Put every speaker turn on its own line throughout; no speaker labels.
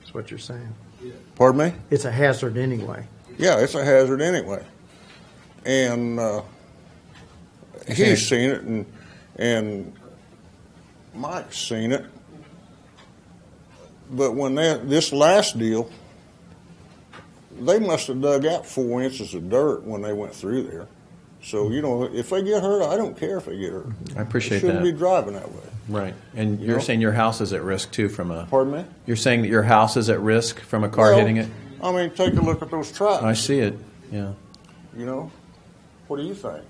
That's what you're saying.
Pardon me?
It's a hazard anyway.
Yeah, it's a hazard anyway. And uh, he's seen it, and and Mike's seen it. But when that this last deal, they must have dug out four inches of dirt when they went through there. So you know, if they get hurt, I don't care if they get hurt.
I appreciate
they shouldn't
that.
be driving that way.
Right. And you're saying your house is at risk too from a.
Pardon me?
You're saying that your house is at risk from a car
Well, uh,
hitting it?
I mean, take a look at those tracks.
I see it. Yeah.
You know, what do you think?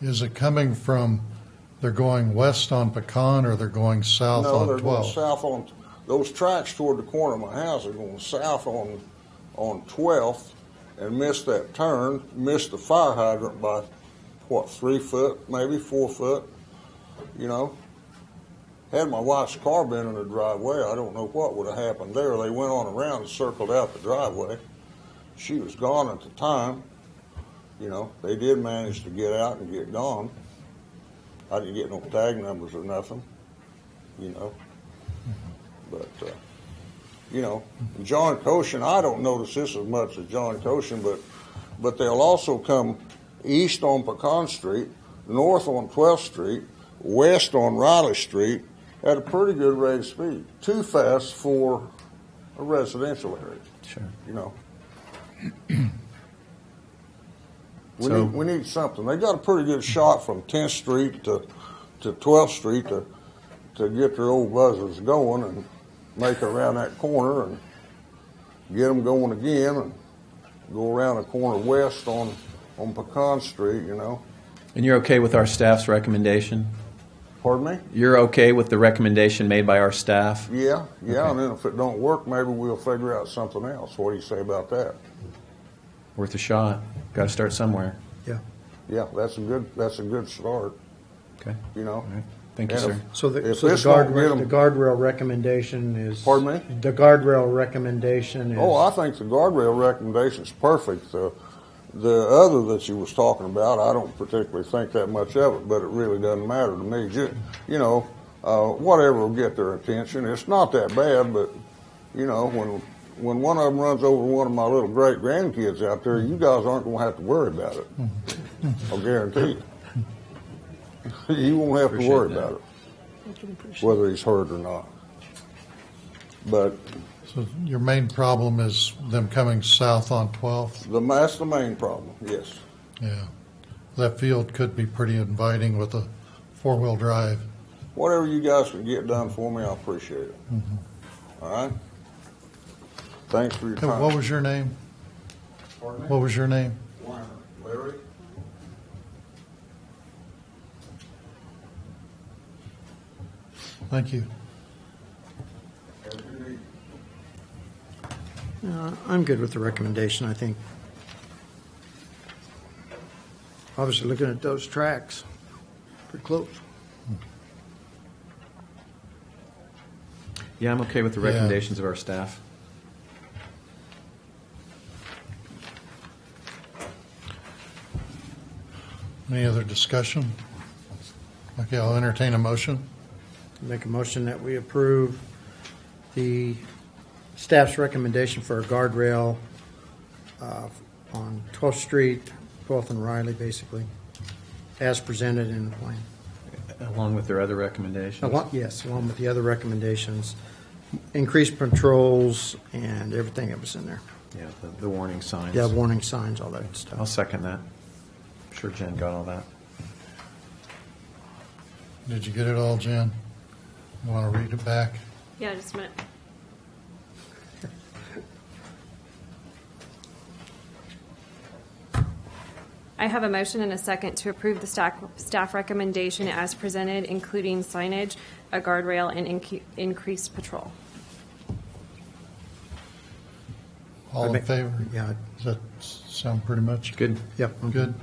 Is it coming from, they're going west on Pecan or they're going south
No, they're going
on 12?
south on, those tracks toward the corner of my house are going south on, on Twelfth and missed that turn, missed the fire hydrant by, what, three foot, maybe four foot, you know? Had my wife's car been in the driveway, I don't know what would have happened there. They went on around and circled out the driveway. She was gone at the time, you know, they did manage to get out and get gone. I didn't get no tag numbers or nothing you know. But, uh, you know, John Koshin, I don't notice this as much as John Koshin, but, but they'll also come east on Pecan Street, north on 12th Street, west on Riley Street at a pretty good rate of speed. Too fast for a residential area,
Sure.
you know. We,
So-
need, we need something. They got a pretty good shot from 10th Street to, to 12th Street to to get their old buzzers going and make around that corner and get them going again and go around the corner west on on Pecan Street, you know.
And you're okay with our staff's recommendation?
Pardon me?
You're okay with the recommendation made by our staff?
Yeah, yeah.
Okay.
And then if it don't work, maybe we'll figure out something else. What do you say about that?
Worth a shot. Got to start somewhere.
Yeah.
Yeah, that's a good that's a good start,
Okay.
you know.
All right. Thank you,
And if-
sir.
So the,
If
so the
this don't get
guardrail,
'em-
the guardrail recommendation is.
Pardon me?
The guardrail recommendation is.
Oh, I think the guardrail recommendation's perfect. The, the other that you was talking about, I don't particularly think that much of it, but it really doesn't matter to me. Ju- you know, uh, whatever will get their attention. It's not that bad, but you know, when when one of them runs over one of my little great grandkids out there, you guys aren't going to have to worry about it.
Mm-hmm.
I'll guarantee you. you won't have to worry
Appreciate that.
about it, whether he's hurt or not. But
So your main problem is them coming south on 12th?
the that's the main problem. Yes.
Yeah. That field could be pretty inviting with a four-wheel drive.
Whatever you guys can get done for me, I appreciate it. All right? Thanks for your
Mm-hmm. Hey,
time.
What was your name? What was your name?
Larry?
Thank you.
Uh, I'm good with the recommendation, I think. Obviously, looking at those tracks, pretty close.
Yeah, I'm okay with the
Yeah.
recommendations of our staff.
Any other discussion? Okay, I'll entertain a motion.
Make a motion that we approve the staff's recommendation for a guardrail uh, on 12th Street, 12th and Riley, basically, as presented in the plan.
Along with their other recommendations.
Along- Yes, along with the other recommendations, increased patrols and everything that was in there.
Yeah, the, the warning signs.
Yeah, warning signs, all that stuff.
I'll second that. I'm sure Jen got all that.
Did you get it all, Jen? You want to read it back?
Yeah, just a minute. I have a motion and a second to approve the staff, staff recommendation as presented, including signage, a guardrail, and inc- increased patrol.
All in
I'd make-
favor?
Yeah,
Does that s- sound pretty much?
Good.
yep. I'm
Mm-hmm. Good.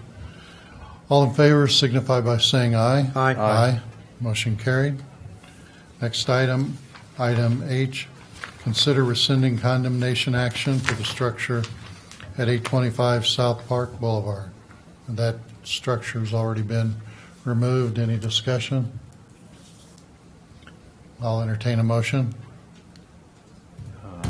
All in favor signify by saying aye.
Aye. Aye.
Aye. Motion carried. Next item, item H, consider rescinding condemnation action for the structure at 825 South Park Boulevard. That structure's already been removed. Any discussion? I'll entertain a motion.